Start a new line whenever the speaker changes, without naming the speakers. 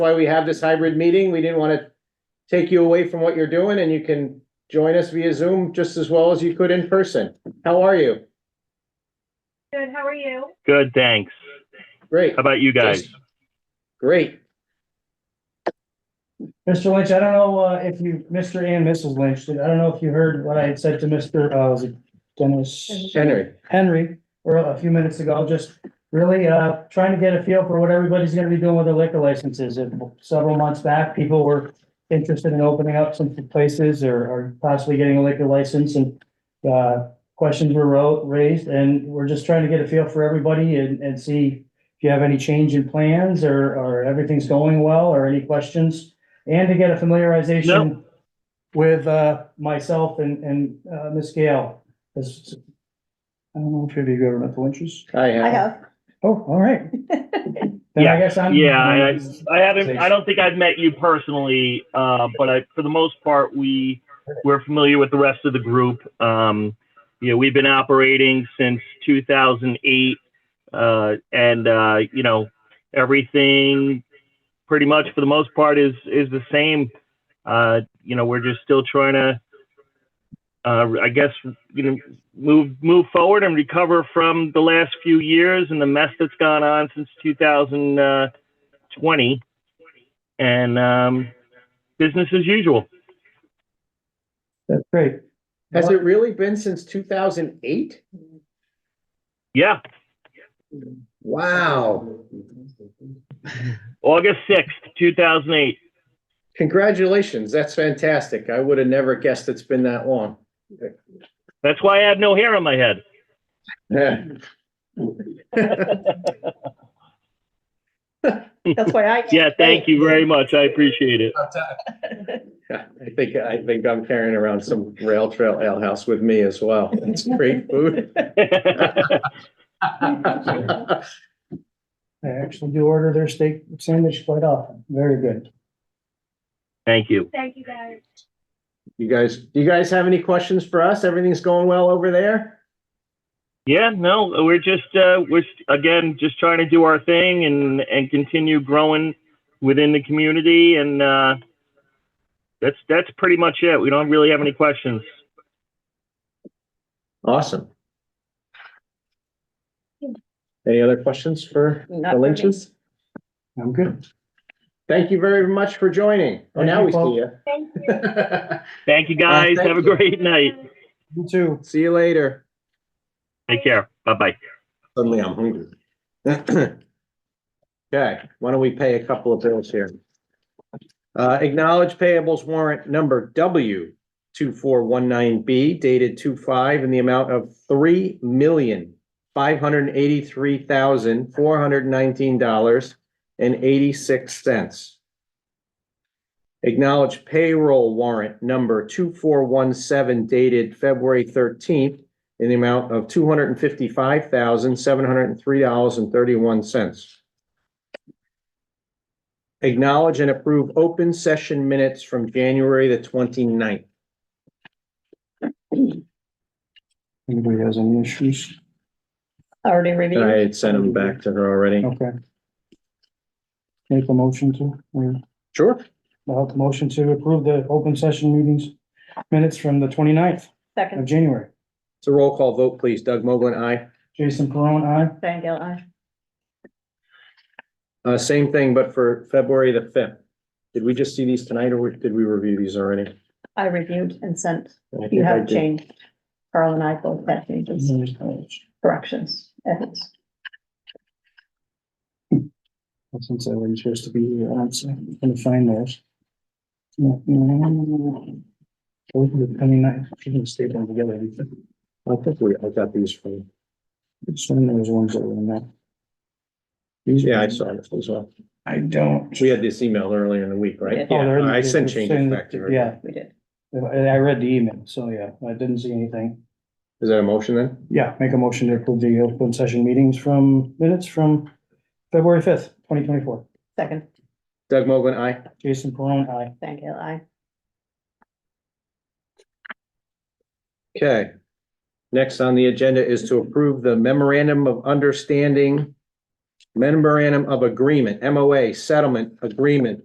why we have this hybrid meeting. We didn't want to take you away from what you're doing and you can join us via Zoom just as well as you could in person. How are you?
Good, how are you?
Good, thanks.
Great,
How about you guys?
Yes. great.
Mr. Lynch, I don't know uh, if you, Mr. and Mrs. Lynch, I don't know if you heard what I had said to Mr. uh, was it Dennis
Henry,
Henry or a few minutes ago, just really uh, trying to get a feel for what everybody's gonna be doing with their liquor licenses. And Several months back, people were interested in opening up some places or or possibly getting a liquor license and uh, questions were ro- raised and we're just trying to get a feel for everybody and and see if you have any change in plans or or everything's going well or any questions. And to get a familiarization with uh myself and and uh Ms. Gale. 'Cause I don't know if you've ever met the Lynches.
I have.
Oh, all right. Then I guess I'm.
Yeah, I, I haven't, I don't think I've met you personally, uh, but I, for the most part, we, we're familiar with the rest of the group. Um, you know, we've been operating since 2008, uh, and, uh, you know, everything pretty much for the most part is, is the same. Uh, you know, we're just still trying to, uh, I guess, you know, move, move forward and recover from the last few years and the mess that's gone on since 2000, uh, 20 and um, business as usual.
That's great.
Has it really been since two thousand eight?
Yeah,
Wow.
August 6th, 2008.
Congratulations. That's fantastic. I would have never guessed it's been that long.
That's why I have no hair on my head.
Yeah.
That's why I.
Yeah, thank you very much. I appreciate it.
I think, I think I'm carrying around some rail trail ale house with me as well. It's great food.
I actually do order their steak sandwich quite often. Very good.
thank you.
Thank you guys.
You guys, do you guys have any questions for us? Everything's going well over there?
Yeah, no, we're just uh, we're st- again just trying to do our thing and and continue growing within the community, and uh, that's that's pretty much it. We don't really have any questions.
Awesome. Any other questions for
Not
the
for me.
Lynches?
I'm good.
Thank you very much for joining. Oh, now we see you.
Thank you.
Thank you guys.
thank
have a
you.
great night.
You too.
See you later.
Take care. Bye bye.
Suddenly I'm hungry. Okay, why don't we pay a couple of bills here? Uh, acknowledge payables warrant number W two four one nine B dated two five in the amount of three million five hundred and eighty-three thousand four hundred and nineteen dollars and eighty-six cents. Acknowledge payroll warrant number two four one seven dated February thirteenth in the amount of two hundred and fifty-five thousand, seven hundred and three dollars and thirty-one cents. Acknowledge and approve open session minutes from January the 29th.
Anybody has any issues?
I Already
And I
reviewed.
had sent them back to her already.
Okay. Make a motion to, or
Sure.
I'll have a motion to approve the open session meetings minutes from the 29th of
Second,
January.
It's a roll call vote, please. Doug Mogul, aye.
Jason Perone, aye.
Mm.
Diane Gale, aye.
Uh, same thing, but for February the fifth. Did we just see these tonight or did we review these already?
I reviewed and sent.
I think
You
I
have
did. Mm-hmm.
changed. Carl and I both had changes, corrections, edits.
Since I wasn't supposed to be here, I'm s- gonna find those. No, no, no, no, no, no. Those were the 29th. She didn't staple them together.
I think we, I got these from,
It's one of those ones that were in that. These-
yeah, I saw this as well.
I don't.
We had this email earlier in the week, right?
Oh, they're in the-
I sent
they're
changes
saying
back to
that-
her.
Yeah,
We did.
I I read the email, so yeah, I didn't see anything.
Is that a motion then?
Yeah, make a motion to approve the open session meetings from minutes from February fifth, twenty twenty-four.
Second,
Doug Mogul, aye.
Jason Perone, aye.
Diane Gale, aye.
Okay. Next on the agenda is to approve the memorandum of understanding memorandum of agreement, MOA, settlement agreement